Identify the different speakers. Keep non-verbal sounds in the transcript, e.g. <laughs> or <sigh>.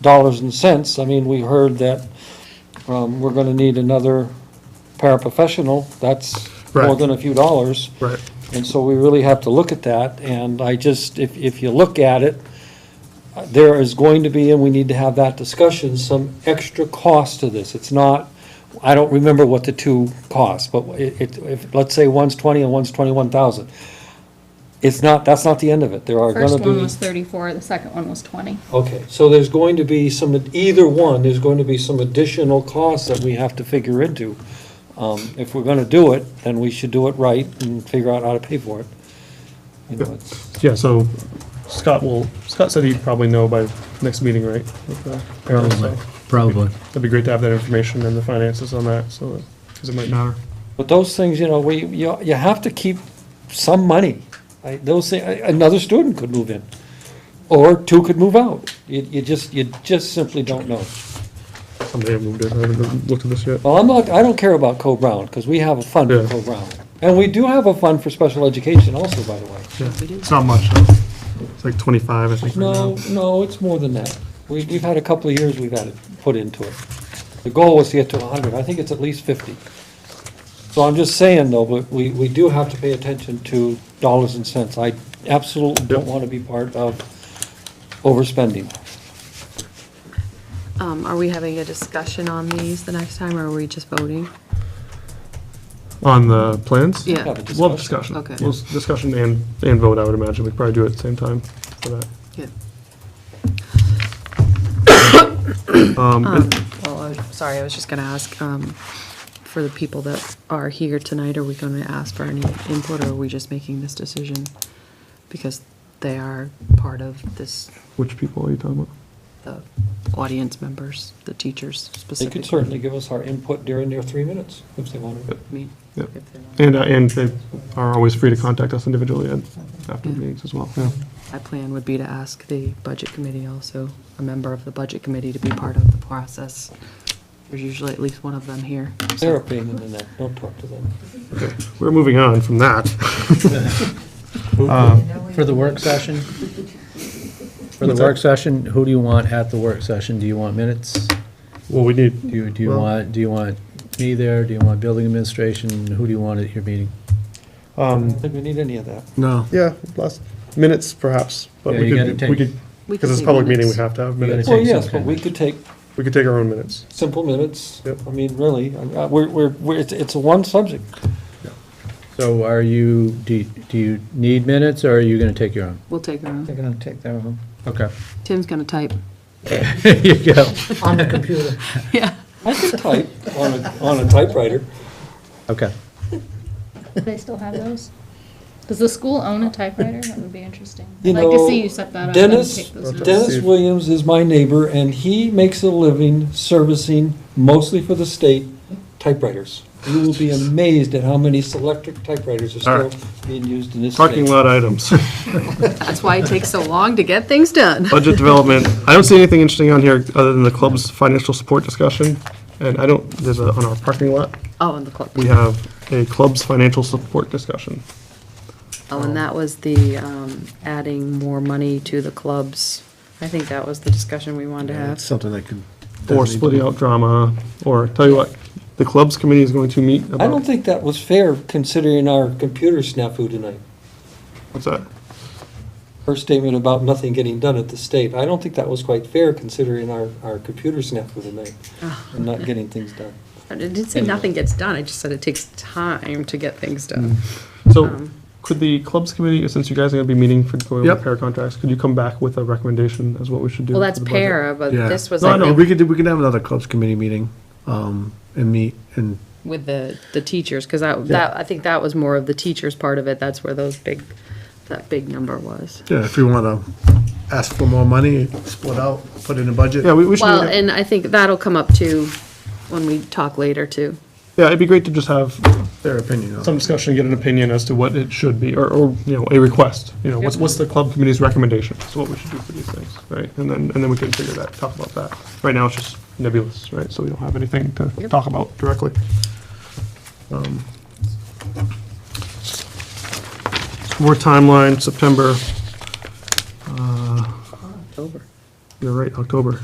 Speaker 1: dollars and cents, I mean, we heard that um, we're gonna need another paraprofessional, that's more
Speaker 2: Right.
Speaker 1: than a few dollars.
Speaker 2: Right.
Speaker 1: And so we really have to look at that, and I just, if, if you look at it, uh, there is going to be, and we need to have that discussion, some extra cost to this. It's not, I don't remember what the two cost, but it, it, if, let's say one's twenty and one's twenty-one thousand. It's not, that's not the end of it, there are gonna be.
Speaker 3: First one was thirty-four, the second one was twenty.
Speaker 1: Okay, so there's going to be some, either one, there's going to be some additional costs that we have to figure into. Um, If we're gonna do it, then we should do it right and figure out how to pay for it. You know, it's-
Speaker 2: Yeah, so Scott will, Scott said he'd probably know by next meeting, right?
Speaker 4: Probably, probably.
Speaker 2: It'd be great to have that information and the finances on that, so, because it might matter.
Speaker 1: But those things, you know, we, you, you have to keep some money. I- Those, thi- another student could move in, or two could move out. You, you just, you just simply don't know.
Speaker 2: Somebody moved it, I haven't looked at this yet.
Speaker 1: Well, I'm not, I don't care about Co-Brown, because we have a fund for
Speaker 2: Yeah.
Speaker 1: Co-Brown. And we do have a fund for special education also, by the way.
Speaker 2: Yeah, It's not much, though. It's like twenty-five, I think, right now.
Speaker 1: No, no, it's more than that. We, we've had a couple of years we've had it put into it. The goal was to get to hundred, I think it's at least fifty. So I'm just saying though, but we, we do have to pay attention to dollars and cents. I absolutely don't want to be part of overspending.
Speaker 5: Um, are we having a discussion on these the next time, or are we just voting?
Speaker 2: On the plans?
Speaker 5: Yeah.
Speaker 1: Have a
Speaker 2: We'll have discussion.
Speaker 5: Okay.
Speaker 2: We'll s- discussion and, and vote, I would imagine. We'd probably do it at the same time for that.
Speaker 5: Yeah.
Speaker 2: Um,
Speaker 5: Um,
Speaker 2: and-
Speaker 5: well, I was- sorry, I was just gonna ask, um, for the people that are here tonight, are we gonna ask for any input, or are we just making this decision? Because they are part of this,
Speaker 2: Which people are you talking about?
Speaker 5: the audience members, the teachers
Speaker 1: They
Speaker 5: specifically.
Speaker 1: could certainly give us our input during their three minutes if they wanted.
Speaker 5: I mean,
Speaker 2: Yeah.
Speaker 5: if they're not-
Speaker 2: And, uh, and they are always free to contact us individually and after
Speaker 5: Yeah.
Speaker 2: meetings as well, yeah.
Speaker 5: My plan would be to ask the budget committee also, a member of the budget committee to be part of the process. There's usually at least one of them here. so-
Speaker 1: They're a pain in the neck, don't talk to them.
Speaker 2: We're moving on from that.
Speaker 4: For the work session? For the work session, who do you want at the work session? Do you want minutes?
Speaker 2: Well, we need,
Speaker 4: Do you, do you
Speaker 2: Well-
Speaker 4: want, do you want me there? Do you want building administration? Who do you want at your meeting?
Speaker 1: I
Speaker 2: Um,
Speaker 1: don't think we need any of that.
Speaker 4: No.
Speaker 2: yeah, last, minutes perhaps, but
Speaker 4: Yeah,
Speaker 2: we
Speaker 4: you gotta
Speaker 2: could, we
Speaker 4: take-
Speaker 2: could,
Speaker 5: We
Speaker 2: because
Speaker 5: could
Speaker 2: it's a
Speaker 5: take
Speaker 2: public meeting, we
Speaker 5: minutes.
Speaker 2: have to have
Speaker 4: gotta
Speaker 2: minutes.
Speaker 4: take-
Speaker 1: Well,
Speaker 4: some
Speaker 1: yes, but
Speaker 4: kind
Speaker 1: we
Speaker 4: of-
Speaker 1: could take
Speaker 2: We could take our own minutes.
Speaker 1: simple minutes.
Speaker 2: Yep.
Speaker 1: I mean, really, I- I- we're, we're, we're- it's, it's a one subject.
Speaker 4: So are you, do, do you need minutes or are you gonna take your own?
Speaker 5: We'll take our own.
Speaker 4: gonna take their own. Okay.
Speaker 5: Tim's gonna type.
Speaker 4: <laughs> There you <laughs> go.
Speaker 5: <laughs> Yeah.
Speaker 1: I could type on a, on a typewriter.
Speaker 4: Okay.
Speaker 3: Do they still have those? Does the school own a typewriter? That would be interesting.
Speaker 1: You
Speaker 3: I'd like to
Speaker 1: know,
Speaker 3: see you set that up and
Speaker 1: Dennis,
Speaker 3: take those notes.
Speaker 1: Dennis Williams is my neighbor, and he makes a living servicing mostly for the state typewriters. You will be amazed at how many electric typewriters are
Speaker 2: All
Speaker 1: still
Speaker 2: right.
Speaker 1: being used in this state.
Speaker 2: Parking lot items,
Speaker 5: That's why it takes so long to get things done.
Speaker 2: <laughs> budget development. I don't see anything interesting on here other than the club's financial support discussion. And I don't, there's a, on our parking lot,
Speaker 5: <laughs> Oh, and the club.
Speaker 2: we have a club's financial support discussion.
Speaker 5: Oh, and that was the, um, adding more money to the clubs. I think that was the discussion we wanted to
Speaker 6: That's
Speaker 5: have.
Speaker 6: something that could.
Speaker 2: Or
Speaker 6: definitely
Speaker 2: splitting
Speaker 6: be-
Speaker 2: out drama, or tell you what, the club's committee is going to meet
Speaker 1: I don't
Speaker 2: about,
Speaker 1: think that was fair considering our computer snafu tonight.
Speaker 2: what's that?
Speaker 1: Her statement about nothing getting done at the state, I don't think that was quite fair considering our, our computer snafu tonight and not getting things done.
Speaker 5: I didn't say nothing gets done, I just said it takes time to get things done.
Speaker 2: So
Speaker 5: Um,
Speaker 2: could the clubs committee, since you guys are gonna be meeting for going over
Speaker 6: Yep.
Speaker 2: pair contracts, could you come back with a recommendation as what we should do?
Speaker 5: Well,
Speaker 2: for
Speaker 5: that's
Speaker 2: the budget?
Speaker 5: para, but
Speaker 6: Yeah.
Speaker 5: this was,
Speaker 6: No,
Speaker 5: I
Speaker 6: no, we
Speaker 5: think,
Speaker 6: could, do- we could have another clubs committee meeting, um, and meet, and
Speaker 5: with the, the teachers, because that, that, I think that was more of the teachers part of it. That's where those big, that big number was.
Speaker 6: Yeah, if we want to ask for more money, split out, put in a budget.
Speaker 2: Yeah, we, we should,
Speaker 5: Well,
Speaker 2: meet up.
Speaker 5: and I think that'll come up too, when we talk later too.
Speaker 2: yeah, it'd be great to just have
Speaker 6: Their opinion on
Speaker 2: some
Speaker 6: it.
Speaker 2: discussion, get an opinion as to what it should be, or, or, you know, a request. You know, what's,
Speaker 5: Yep.
Speaker 2: what's the club committee's recommendation, so what we should do for these things, right? And then, and then we can figure that, talk about that. Right now, it's just nebulous, right, so we don't have anything to
Speaker 5: Yep.
Speaker 2: talk about directly. Um, More timeline, September,
Speaker 5: October.
Speaker 2: uh, you're right, October.